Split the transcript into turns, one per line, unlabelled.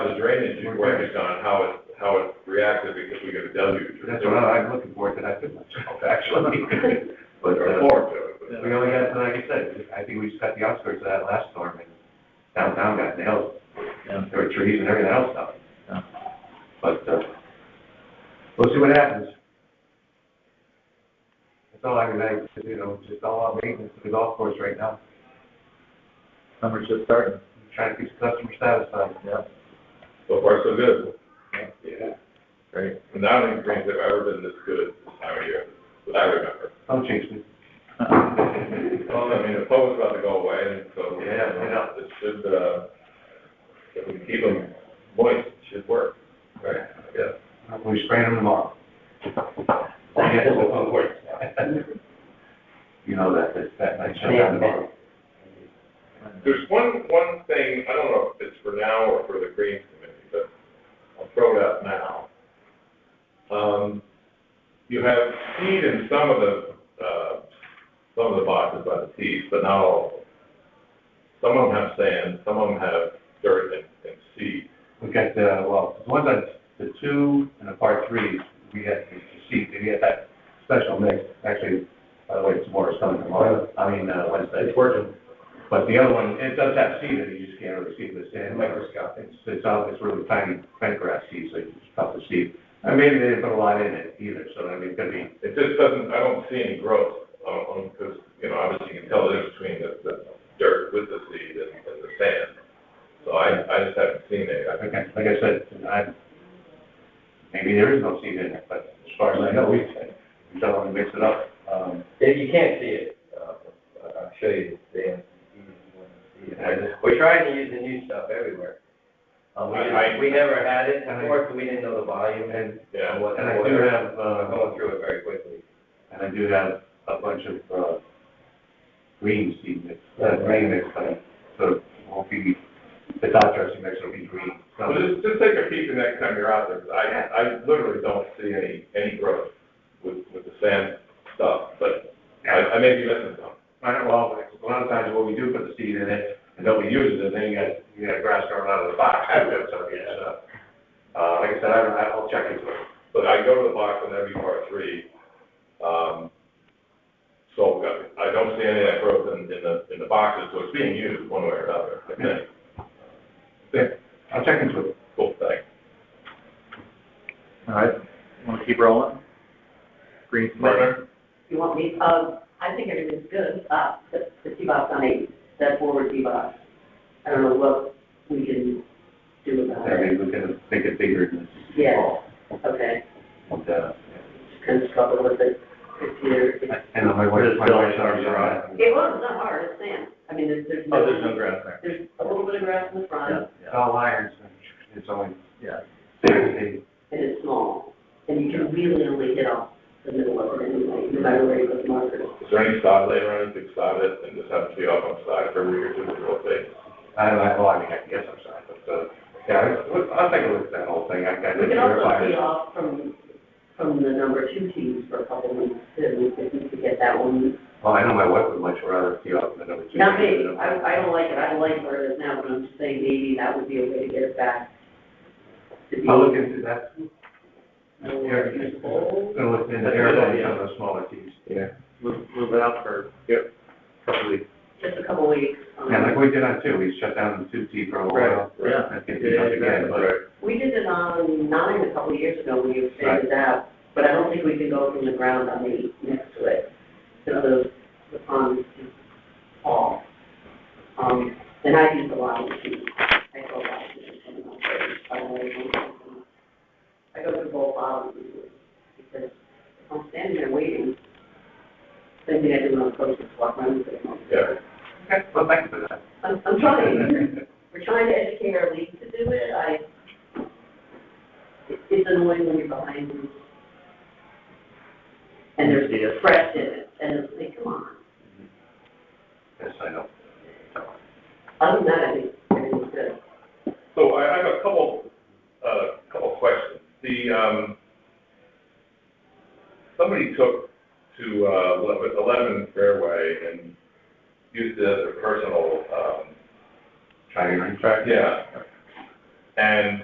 contingency work is on how it, how it reacted because we got a W.
That's what I- I'm looking forward to that too myself, actually.
Or
But, uh,
forward to it, but-
we only got, like I said, I think we just got the outskirts of that last storm and downtown got nailed.
Yeah.
There were trees and everything else up.
Yeah.
But, uh, we'll see what happens. That's all I can say, you know, just all our maintenance of the golf course right now,
Summer's just starting,
trying to keep the customer satisfied.
yeah,
So far, so good.
Yeah.
great.
And I don't think greens have ever been this good this time of year, that I remember.
Don't chase me.
Well, I mean, the public's about to go away, and so.
Oh, Yeah, I know.
It should, uh, if we keep them moist, it should work. Right. Yeah.
We spraying them tomorrow. Yeah, so- You know that, that, that might shut down tomorrow.
There's one, one thing, I don't know if it's for now or for the Greens Committee, but I'll throw it out now. Um, you have seed in some of the, uh, some of the boxes by the seeds, but not all of them. Some of them have sand, some of them have dirt and, and seed.
We got the, well, the ones on the two and the part threes, we had to see, we had that special mix, actually, by the way, it's more coming tomorrow, I mean, uh, Wednesday. It's working. But the other one, it does have seed in it, you just can't really see the sand. Microscopic. It's, it's, all- it's really tiny, tiny grass seed, so it's tough to see. And maybe they didn't put a lot in it either, so I mean, it could be,
It just doesn't, I don't see any growth, um, because, you know, obviously you can tell the difference between the, the dirt with the seed and, and the sand. So I, I just haven't seen it. I
like I, like I said, I, maybe there is no seed in it, but as far as I know, we, we don't want to mix it up. Um,
If you can't see it, uh, I'll show you the Dan. We're trying to use the new stuff everywhere. Uh, we
I- I-
just, we never had it
And I-
before, so we didn't know the volume and
and
Yeah.
what.
And I do have, uh,
I'm going through it very quickly.
and I do have a bunch of, uh, green seed mix, uh, green mix, uh, so it won't be, the top dressing mix will be green.
Well,
So,
just, just take a peek the next time you're out there, 'cause I, I literally don't see any, any growth with, with the sand stuff, but I, I may be missing some.
I don't, well, a lot of times when we do put the seed in it, and nobody uses it, then you got, you got grass growing out of the box, so, yeah, so. Uh, like I said, I don't, I'll check into it.
But I go to the box on every part three, um, so I I don't see any of that growth in, in the, in the boxes, so it's being used one way or another, I think.
I'll check into it.
Cool thing.
All right, wanna keep rolling? Green Committee,
Murphy?
You want me, uh, I think everything's good, uh, the, the T-box on eight, that forward T-box. I don't know what we can do about
I
it.
mean, we can make it bigger than this.
Yeah. Okay,
And, uh,
just kind of struggle with it this year. It
and my wife, my wife's arms are on. it.
wasn't that hard, it's sand, I mean, there's, there's no.
oh, there's no ground there.
There's a little bit of grass in the front,
It's all irons, it's only,
Yeah,
and it's small, and you can really only hit off the middle of it anyway, no matter where you put the markers.
Is there any sod layer or anything sod it, and just have to be off on side for a week or two, we'll see.
I don't know, well, I mean, I guess I'm sorry, but, uh, yeah, I- I'll take a look at that whole thing, I, I
We
didn't
can also
verify
pay
it.
off from, from the number two teams for a couple weeks, too, if we could get that one.
Well, I know my wife would much rather see off than number two.
Not me, I, I don't like it, I like where it is now, but I'm just saying maybe that would be a way to get it back. to be
I'll look into that,
More usable.
I'll look into
That's a good
airplanes
idea.
on those smaller teams.
Yeah.
move, move it out for
Yep.
couple weeks.
Just a couple weeks. um,
Yeah, like we did on two, we shut down the two T for a while.
Yeah.
I think we did
Yeah,
again,
exactly.
but,
We did it on nine a couple years ago, when you expanded that, but I don't think we can go from the ground on the, next to it. So the, the pond is too tall. Um, and I use a lot of the, sheet. I go out to the, and I'll try to find a way to do something. I go to both bottoms usually, because if I'm standing there waiting, same thing I do when I'm coaching, walk around the same.
Yeah.
okay, well, thanks for that.
I'm, I'm trying. We're trying to educate our league to do it, I, it- it's annoying when you're behind them. And there's
Yeah.
fresh in it, and it's like, come on.
Yes, I know.
Other than that, I think everything's good.
So I I have a couple, uh, couple questions. The, um, somebody took to, uh, eleven, eleven fairway and used it as a personal, um,
Try your,
yeah. And